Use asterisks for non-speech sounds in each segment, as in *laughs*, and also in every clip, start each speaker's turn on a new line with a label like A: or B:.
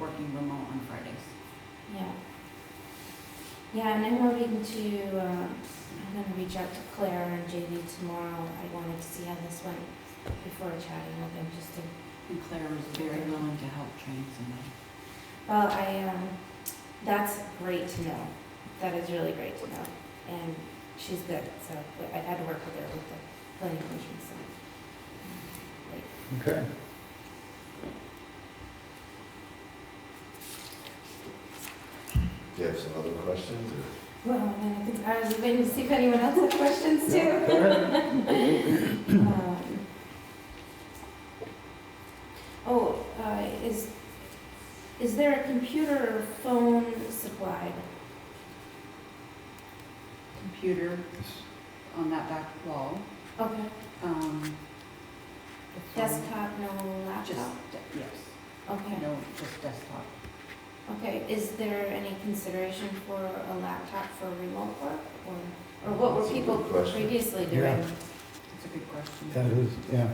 A: working remote on Fridays.
B: Yeah. Yeah, and I'm hoping to, uh, I'm gonna reach out to Claire and JD tomorrow. I wanted to see how this went before chatting with them, just to,
A: And Claire was very willing to help train somebody.
B: well, I, um, that's great to know. That is really great to know. And she's good, so but I've had to work with her with the planning commission, so.
C: Okay.
D: Do you have some other questions? or-
B: Well, and I think I was waiting to see if anyone else had questions
C: Yeah,
B: too.
C: go ahead.
B: Um, Oh, uh, is, is there a computer or phone supplied?
A: Computer on that back wall,
B: Okay.
A: um. the phone,
B: Desktop, no
A: Just,
B: laptop?
A: de- yes,
B: Okay,
A: no, just desktop.
B: okay. Is there any consideration for a laptop for remote work? Or, or what were
D: That's a good
B: people
D: question.
B: previously
C: Yeah.
B: doing?
A: It's a good
C: That
A: question.
C: is, yeah,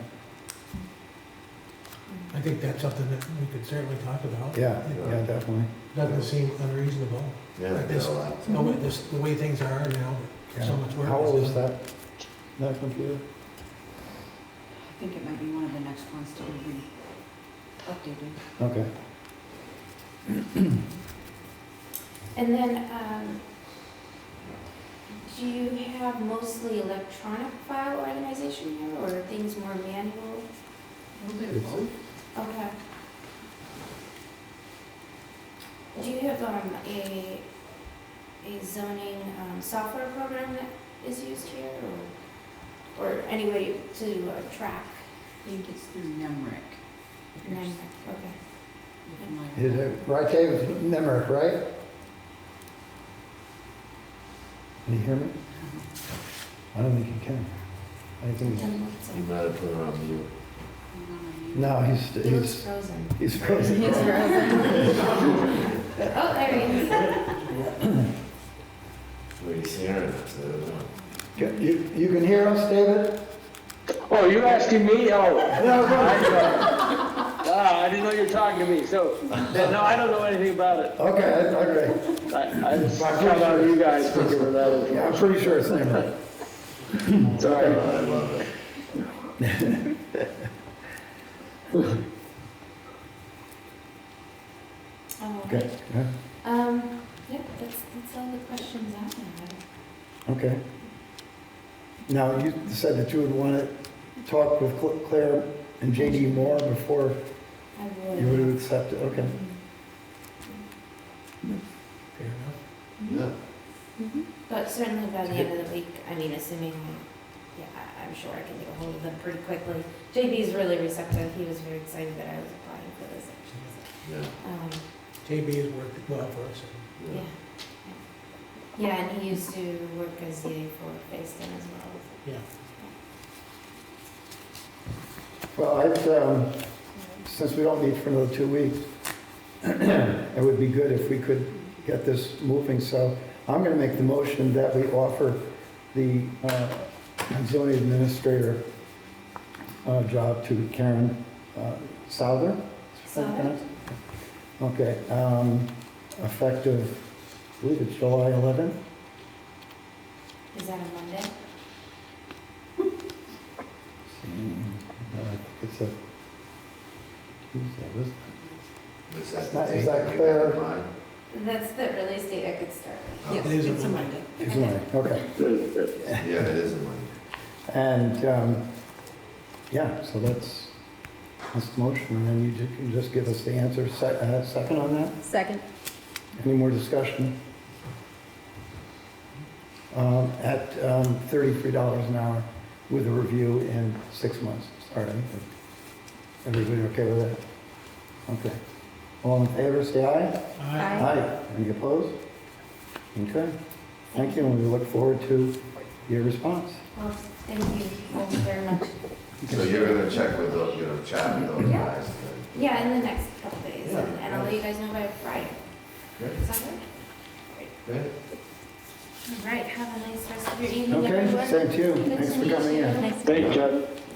B: Mm-hmm.
E: I think that's something that we could certainly talk about.
C: yeah, yeah, definitely.
E: Doesn't seem unreasonable.
D: Yeah,
E: This-
D: no, I-
E: The way, this, the way things are now,
C: Yeah.
E: so much work.
C: How old is
E: done.
C: that, that computer?
A: I think it might be one of the next ones to be updated.
C: Okay.
B: And then, um, do you have mostly electronic file organization here or are things more manual?
A: We'll do
C: It's-
A: both.
B: Okay. Do you have, um, a, a zoning, um, software program that is used here, or, or any way to uh, track?
A: I think it's through Nemrick. if
B: and
A: you're
B: then-
A: s-
B: Okay,
A: if you're familiar
C: Is
A: with
C: it, right, Dave, Nemrick, right? Can you hear me?
A: Uh-huh.
C: I don't think you can. I think, he's-
B: Then what's it?
D: You might have put it on mute.
A: that.
C: no, he's,
B: He looks
C: he's,
B: frozen.
C: he's frozen.
B: Oh, there he is.
D: We hear it, so, no.
C: You, you can hear us, David?
F: Oh, you're asking me? Oh,
C: No, no.
F: *laughs* ah, I didn't know you were talking to me. So, no, I don't know anything about it.
C: Okay, okay.
F: I, I just found out you guys figured it out.
C: Yeah, I'm pretty sure it's Nemrick.
F: It's all right.
D: I love it.
B: *laughs* Oh,
C: Okay, yeah,
B: Um, yeah, that's, that's all the questions I have.
C: okay. Now, you said that you would want to talk with Cl- Claire and JD Moore before
B: I
C: you would
B: would.
C: have accepted, okay.
E: Fair enough.
D: Yeah,
B: Mm-hmm. But certainly by the end of the week, I mean, assuming, yeah, I- I'm sure I can get a hold of them pretty quickly. JB's really receptive, he was very excited that I was applying for this, actually.
D: yeah,
B: Um,
E: JB has worked well for us.
B: yeah.
D: yeah.
B: Yeah, and he used to work as ZA for Facein as well.
E: Yeah.
C: Well, I've, um, since we don't meet for another two weeks, *clears throat* it would be good if we could get this moving, so I'm gonna make the motion that we offer the uh, zoning administrator uh, job to Karen uh, Souther.
B: Souther.
C: Okay, um, effective, I believe it's July 11th?
B: Is that a Monday?
C: Uh, It's a, Tuesday, isn't it?
D: Is that
C: Is
D: the
C: that- is
D: date
C: that
D: you have in
C: clear?
D: mind?
B: That's the earliest date I could start.
A: Yes,
E: It is a
A: it's a
E: Monday.
A: Monday.
C: It's Monday, okay.
D: Yeah, it is in mind.
C: And, um, yeah, so that's, that's the motion, and then you ju- you just give us the answer, Se- uh, second on that?
G: Second.
C: Any more discussion? Um, At um, $33 an hour with a review in six months, all right? Everybody okay with that? Okay. All in favor, say aye.
E: I,
C: Aye. Any opposed? Okay, thank you, and we look forward to your response.
B: Well, thank you both very much.
D: So you're gonna check with those, you know, chat with those
B: Yeah.
D: guys. then.
B: Yeah, in the next couple days,
D: Yeah.
B: and and I'll let you guys know by Friday.
D: Great.
B: Is that good?
D: Great.
B: All right, have a nice rest of your evening,
C: Okay,
B: everyone.
C: same to you,
B: Good to
C: thanks for
B: meet
C: coming
B: you.
C: in.
G: Nice.
F: Thanks, Chuck.